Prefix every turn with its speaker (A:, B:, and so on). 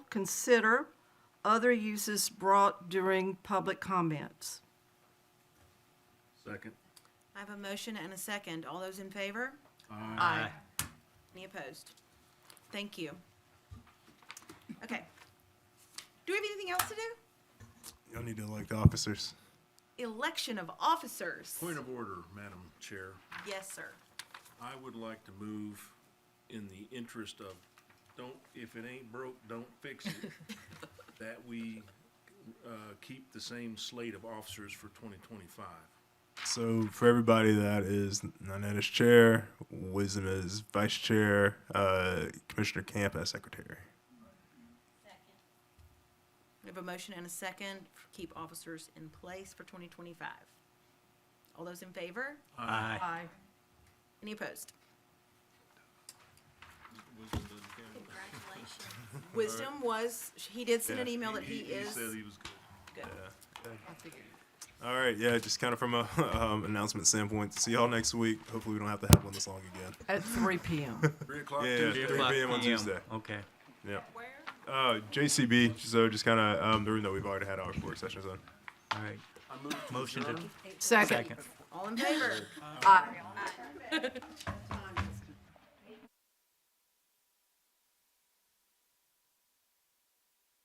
A: Consider other uses brought during public comments.
B: Second.
C: I have a motion and a second. All those in favor?
B: Aye.
C: Any opposed? Thank you. Okay. Do we have anything else to do?
D: Y'all need to elect officers.
C: Election of officers.
B: Point of order, Madam Chair.
C: Yes, sir.
B: I would like to move in the interest of, don't, if it ain't broke, don't fix it, that we uh, keep the same slate of officers for 2025.
D: So for everybody that is Nanette as chair, Wisdom as vice chair, uh, Commissioner Camp as secretary.
C: We have a motion and a second. Keep officers in place for 2025. All those in favor?
B: Aye.
A: Aye.
C: Any opposed?
E: Congratulations.
C: Wisdom was, he did send an
D: Yeah,
C: email that he is
B: said he was good.
C: good.
D: All right, yeah, just kind of from a um, announcement standpoint. See y'all next week. Hopefully we don't have to have one this long again.
A: At three PM.
B: Three o'clock
D: Yeah,
B: Tuesday.
D: yeah, 3 p.m. on Tuesday.
F: Okay.
D: Yep.
E: Where?
D: Uh, JCB. So just kind of um, the room that we've already had our work sessions on.
F: All right. Motion to
A: Second.
F: second.
C: All in favor?
A: Aye.